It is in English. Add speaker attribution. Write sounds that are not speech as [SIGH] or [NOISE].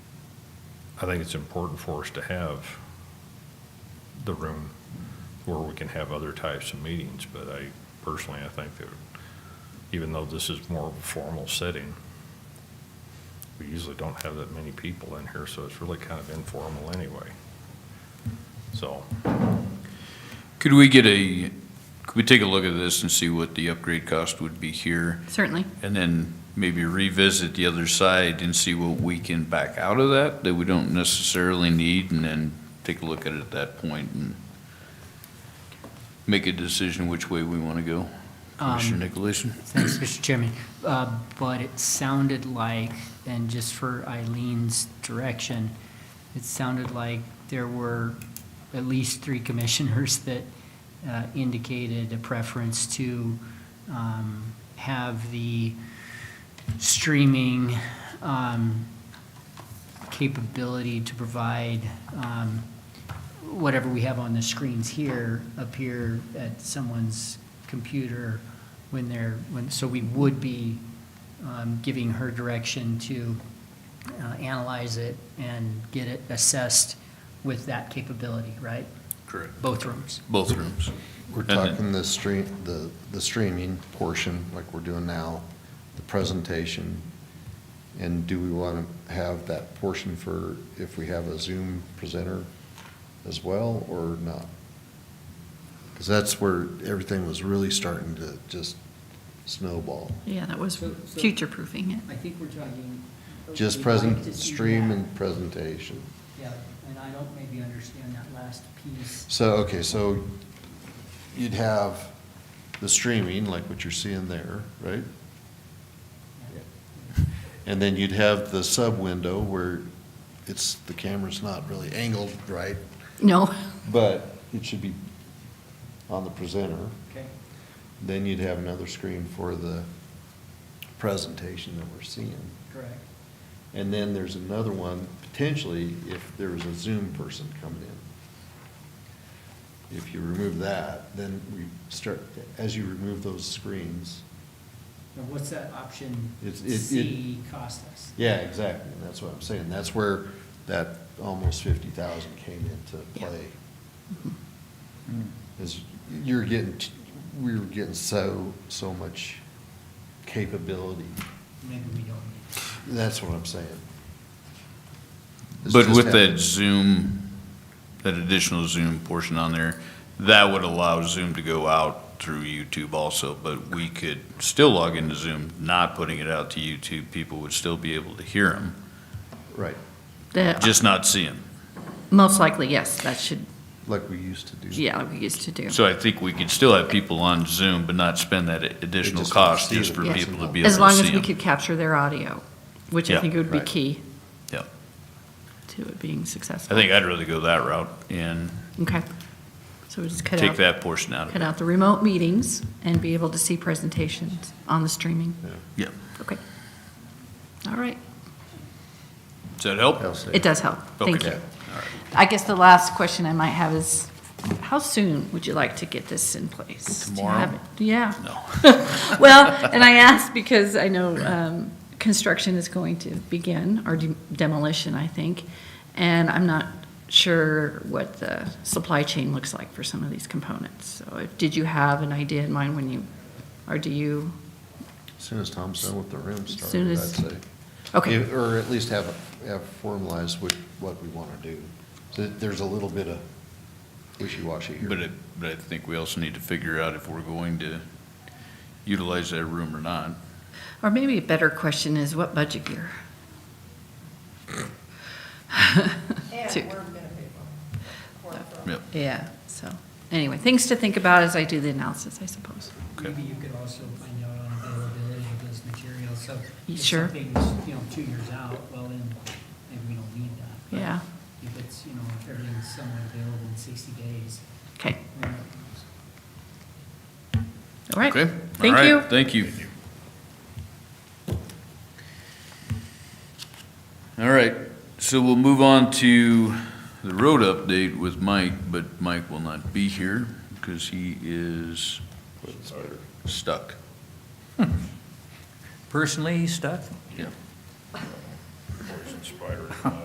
Speaker 1: I think it's important for us to have the room where we can have other types of meetings, but I personally, I think that even though this is more of a formal setting, we usually don't have that many people in here, so it's really kind of informal anyway. So,
Speaker 2: Could we get a, could we take a look at this and see what the upgrade cost would be here?
Speaker 3: Certainly.
Speaker 2: And then maybe revisit the other side and see what we can back out of that, that we don't necessarily need, and then take a look at it at that point and make a decision which way we want to go. Commissioner Nicolason?
Speaker 4: Thanks, Mr. Chairman. Uh, But it sounded like, and just for Eileen's direction, it sounded like there were at least three commissioners [LAUGHS] that uh, indicated a preference to um, have the streaming um, capability to provide um, whatever we have on the screens here appear at someone's computer when they're, when, so we would be um, giving her direction to uh, analyze it and get it assessed with that capability, right?
Speaker 2: Correct.
Speaker 4: Both rooms.
Speaker 2: Both rooms.
Speaker 5: We're
Speaker 2: And then-
Speaker 5: talking the stream, the, the streaming portion, like we're doing now, the presentation. And do we want to have that portion for if we have a Zoom presenter as well or not? Because that's where everything was really starting to just snowball.
Speaker 3: Yeah, that was
Speaker 4: So- so-
Speaker 3: future-proofing it.
Speaker 4: I think we're talking.
Speaker 5: Just present, stream and presentation.
Speaker 4: Yeah, and I don't maybe understand that last piece.
Speaker 5: So, okay, so you'd have the streaming, like what you're seeing there, right? And then you'd have the sub-window where it's, the camera's not really angled right,
Speaker 3: No,
Speaker 5: but it should be on the presenter.
Speaker 4: Okay.
Speaker 5: Then you'd have another screen for the presentation that we're seeing.
Speaker 4: Correct.
Speaker 5: And then there's another one, potentially, if there was a Zoom person coming in. If you remove that, then we start, as you remove those screens,
Speaker 4: Now, what's that option
Speaker 5: It's- it- it-
Speaker 4: C cost us?
Speaker 5: yeah, exactly, and that's what I'm saying, that's where that almost fifty thousand came into
Speaker 3: Yeah.
Speaker 5: play.
Speaker 2: Mm-hmm.
Speaker 5: Is you're getting, t- we were getting so, so much capability,
Speaker 4: Maybe we don't need. it.
Speaker 5: that's what I'm saying. It's
Speaker 2: But
Speaker 5: just
Speaker 2: with that
Speaker 5: having-
Speaker 2: Zoom, that additional Zoom portion on there, that would allow Zoom to go out through YouTube also, but we could still log into Zoom, not putting it out to YouTube. People would still be able to hear them,
Speaker 5: Right,
Speaker 3: the,
Speaker 2: just not see them.
Speaker 3: most likely, yes, that should,
Speaker 5: like we used to do.
Speaker 3: yeah, we used to do.
Speaker 2: So I think we could still have people on Zoom, but not spend that additional
Speaker 5: just won't
Speaker 2: cost
Speaker 5: see
Speaker 2: just
Speaker 5: the
Speaker 2: for
Speaker 3: Yeah.
Speaker 2: people to be able
Speaker 3: As
Speaker 2: to
Speaker 3: long as
Speaker 2: see
Speaker 3: we
Speaker 2: them.
Speaker 3: could capture their audio, which I
Speaker 2: Yeah,
Speaker 3: think would be
Speaker 5: right.
Speaker 3: key
Speaker 2: Yeah.
Speaker 3: to it being
Speaker 2: I
Speaker 3: successful.
Speaker 2: think I'd rather go that route and
Speaker 3: Okay. So we just cut
Speaker 2: take
Speaker 3: out,
Speaker 2: that portion out of
Speaker 3: cut
Speaker 2: it.
Speaker 3: out the remote meetings and be able to see presentations on the streaming.
Speaker 2: Yeah.
Speaker 3: Okay. All right.
Speaker 2: Does that help?
Speaker 5: I'll say.
Speaker 3: It does help. Thank
Speaker 2: Okay.
Speaker 3: you. I guess the last question I might have is, how soon would you like to get this in place? Do you have
Speaker 2: Tomorrow?
Speaker 3: it? Yeah.
Speaker 2: No.
Speaker 3: [LAUGHS] Well, and I ask because I know um, construction is going to begin, or de- demolition, I think, and I'm not sure what the supply chain looks like for some of these components. So if- did you have an idea in mind when you, or do you,
Speaker 5: As Soon as Tom's done with the room
Speaker 3: Soon
Speaker 5: started, I'd
Speaker 3: as-
Speaker 5: say.
Speaker 3: okay,
Speaker 5: If- Or at least have, a- have formalized what, what we want to do. So There's a little bit of wishy-washy here.
Speaker 2: But I, but I think we also need to figure out if we're going to utilize that room or not.
Speaker 3: or maybe a better question is what budget year?
Speaker 6: And
Speaker 3: [LAUGHS] Two.
Speaker 6: we're gonna pay for it. We're-
Speaker 2: Yep,
Speaker 3: Yeah, so, anyway, things to think about as I do the analysis, I suppose.
Speaker 2: Okay.
Speaker 4: Maybe you could also find out on availability of those materials, so.
Speaker 3: You
Speaker 4: if
Speaker 3: sure?
Speaker 4: something's, you know, two years out, well, then maybe we don't need that. But
Speaker 3: Yeah,
Speaker 4: If it's, you know, if everything's somewhat available in sixty days,
Speaker 3: okay,
Speaker 4: we might-
Speaker 3: all right.
Speaker 2: okay? All
Speaker 3: Thank
Speaker 2: right,
Speaker 3: you.
Speaker 2: Thank you. All right, so we'll move on to the road update with Mike, but Mike will not be here because he is stuck.
Speaker 7: personally stuck?
Speaker 2: Yeah.
Speaker 1: poison spider.